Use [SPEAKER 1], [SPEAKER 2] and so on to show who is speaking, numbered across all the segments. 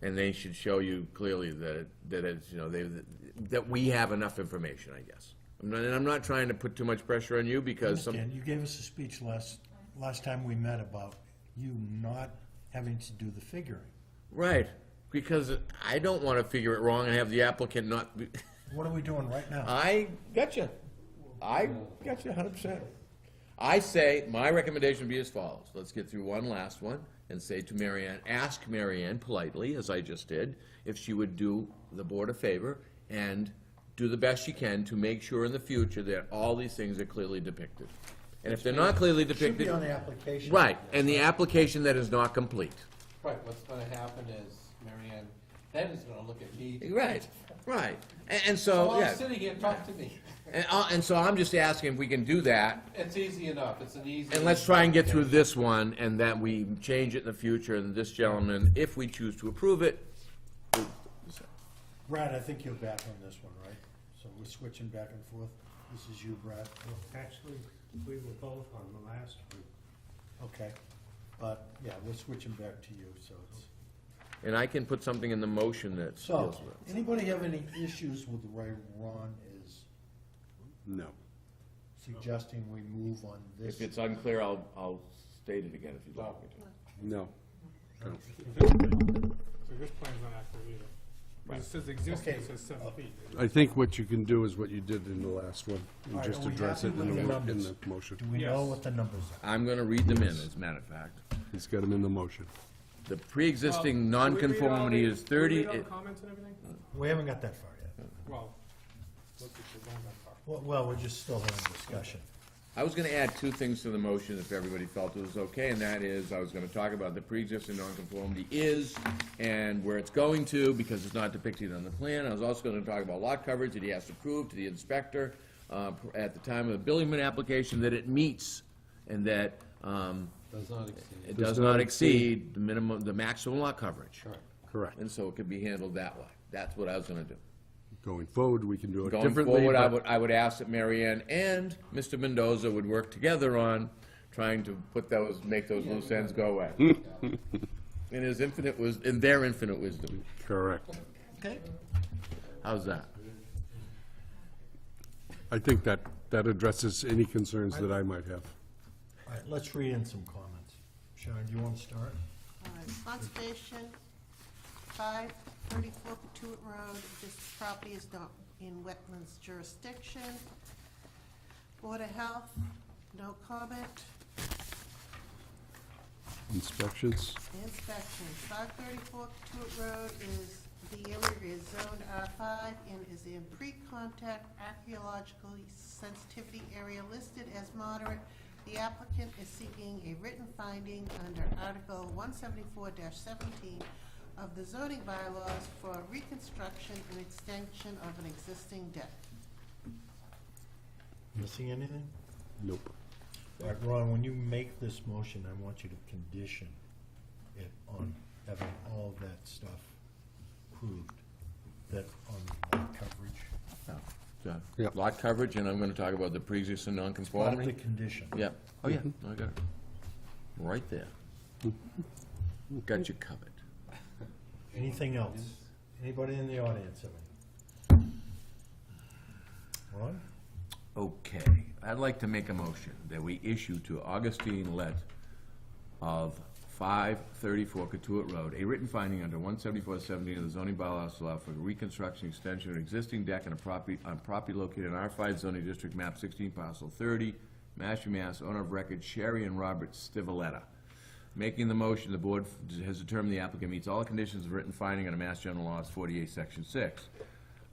[SPEAKER 1] And they should show you clearly that, it- that it's, you know, they, that we have enough information, I guess. I'm not- And I'm not trying to put too much pressure on you because some,
[SPEAKER 2] Dan, you gave us a speech last, last time we met about you not having to do the figuring.
[SPEAKER 1] right, because I don't want to figure it wrong and have the applicant not, be-
[SPEAKER 2] What are we doing right now?
[SPEAKER 1] I gotcha. I gotcha hundred percent. I say, my recommendation would be as follows. Let's get through one last one and say to Marianne, ask Marianne politely, as I just did, if she would do the board a favor and do the best she can to make sure in the future that all these things are clearly depicted. And if they're not clearly
[SPEAKER 2] Should be
[SPEAKER 1] depicted,
[SPEAKER 2] on the application.
[SPEAKER 1] right, and the application that is not complete.
[SPEAKER 3] Right, what's gonna happen is Marianne then is gonna look at me.
[SPEAKER 1] Right, right. And, and
[SPEAKER 3] While
[SPEAKER 1] so,
[SPEAKER 3] I'm
[SPEAKER 1] yeah.
[SPEAKER 3] sitting here, talk to me.
[SPEAKER 1] And, I- and so I'm just asking if we can do that
[SPEAKER 3] It's easy enough, it's an easy.
[SPEAKER 1] And let's try and get through this one, and that we change it in the future, and this gentleman, if we choose to approve it,
[SPEAKER 2] Brad, I think you're back on this one, right? So we're switching back and forth. This is you, Brad.
[SPEAKER 4] Actually, we were both on the last one.
[SPEAKER 2] Okay. But, yeah, we're switching back to you, so it's.
[SPEAKER 1] and I can put something in the motion that
[SPEAKER 2] So,
[SPEAKER 1] deals with it.
[SPEAKER 2] anybody have any issues with the way Ron is
[SPEAKER 5] No.
[SPEAKER 2] suggesting we move on this?
[SPEAKER 1] If it's unclear, I'll, I'll state it again if you'd like me to.
[SPEAKER 5] No.
[SPEAKER 4] So this plan's not accurate either. 'Cause it says existing, it says seven feet.
[SPEAKER 5] I think what you can do is what you did in the last one,
[SPEAKER 2] All
[SPEAKER 5] and
[SPEAKER 2] right,
[SPEAKER 5] just
[SPEAKER 2] are we
[SPEAKER 5] address it
[SPEAKER 2] happy
[SPEAKER 5] in
[SPEAKER 2] with
[SPEAKER 5] the,
[SPEAKER 2] the
[SPEAKER 5] in
[SPEAKER 2] numbers?
[SPEAKER 5] the motion.
[SPEAKER 2] Do we know
[SPEAKER 4] Yes.
[SPEAKER 2] what the numbers are?
[SPEAKER 1] I'm gonna read them in, as a matter of fact.
[SPEAKER 5] He's got them in the motion.
[SPEAKER 1] The pre-existing nonconformity is thirty,
[SPEAKER 4] Can we read all
[SPEAKER 1] it-
[SPEAKER 4] the comments and everything?
[SPEAKER 2] We haven't got that far yet.
[SPEAKER 4] Well, look at the one that far.
[SPEAKER 2] Well- Well, we're just still having discussion.
[SPEAKER 1] I was gonna add two things to the motion if everybody felt it was okay, and that is, I was gonna talk about the pre-existing nonconformity is and where it's going to, because it's not depicted on the plan. I was also gonna talk about lot coverage that he has to prove to the inspector, uh, at the time of the building permit application, that it meets and that, um,
[SPEAKER 3] Does not exceed.
[SPEAKER 1] it does not exceed the minimum, the maximum lot coverage.
[SPEAKER 5] Correct.
[SPEAKER 1] And so it could be handled that way. That's what I was gonna do.
[SPEAKER 5] Going forward, we can do it
[SPEAKER 1] Going
[SPEAKER 5] differently.
[SPEAKER 1] forward, I
[SPEAKER 5] but-
[SPEAKER 1] would, I would ask that Mary Ann and Mr. Mendoza would work together on trying to put those, make those loose ends go away. In his infinite was, in their infinite wisdom.
[SPEAKER 5] Correct.
[SPEAKER 1] Okay. How's that?
[SPEAKER 5] I think that, that addresses any concerns that I might have.
[SPEAKER 2] All right, let's read in some comments. Sharon, do you want to start?
[SPEAKER 6] All right, Conservation, five thirty-four Patuit Road, this property is not in wetlands jurisdiction. Board of Health, no comment.
[SPEAKER 5] Inspections,
[SPEAKER 6] Inspection, five thirty-four Patuit Road is, the area is zoned R five and is in pre-contact archaeological sensitivity area listed as moderate. The applicant is seeking a written finding under Article one seventy-four seventeen of the zoning bylaws for reconstruction and extension of an existing deck.
[SPEAKER 2] Missing anything?
[SPEAKER 5] nope.
[SPEAKER 2] All right, Ron, when you make this motion, I want you to condition it on having all that stuff proved, that on lot coverage.
[SPEAKER 5] Yeah.
[SPEAKER 1] Oh, Lot coverage, and I'm gonna talk about the pre-existing
[SPEAKER 2] Part of the
[SPEAKER 1] non-conformity.
[SPEAKER 2] condition.
[SPEAKER 1] Yeah. Oh, yeah, I got it. Right there. Got you covered.
[SPEAKER 2] Anything else? Anybody in the audience have any? Ron?
[SPEAKER 1] Okay, I'd like to make a motion that we issue to Augustine Lett of five thirty-four Catuit Road, a written finding under one seventy-four seventy of the zoning bylaws to allow for reconstruction, extension of an existing deck on a property, on property located in R five zoning district map sixteen parcel thirty, Mashpee, Mass, owner of record Sherry and Robert Stivaleta. Making the motion, the board has determined the applicant meets all conditions of written finding under Mass General Laws forty-eight, section six.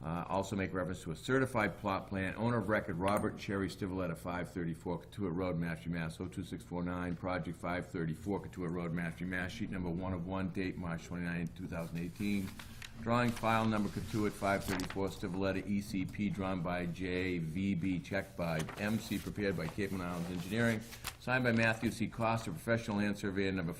[SPEAKER 1] Uh, Also make reference to a certified plot plan, owner of record Robert Cherry Stivaleta, 534 Katuah Road, Mashpee, Mass. 02649, project 534 Katuah Road, Mashpee, Mass. Sheet number one of one, date March 29, 2018. Drawing file number Katuah 534 Stivaleta ECP, drawn by JVB, checked by MC, prepared by Cape and Islands Engineering, signed by Matthew C. Costa, professional land surveyor number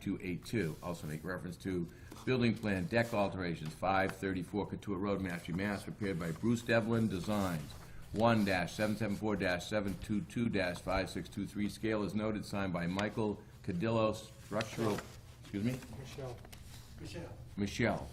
[SPEAKER 1] 52282. Also make reference to Building plan, deck alterations, five thirty-four Katuah Road, Mashpee, Mass, prepared by Bruce Devlin Designs. One seven seven four seven two two five six two three, scale is noted, signed by Michael Cadillo, structural, excuse me?
[SPEAKER 4] Michelle,
[SPEAKER 3] Michelle,
[SPEAKER 1] Michelle?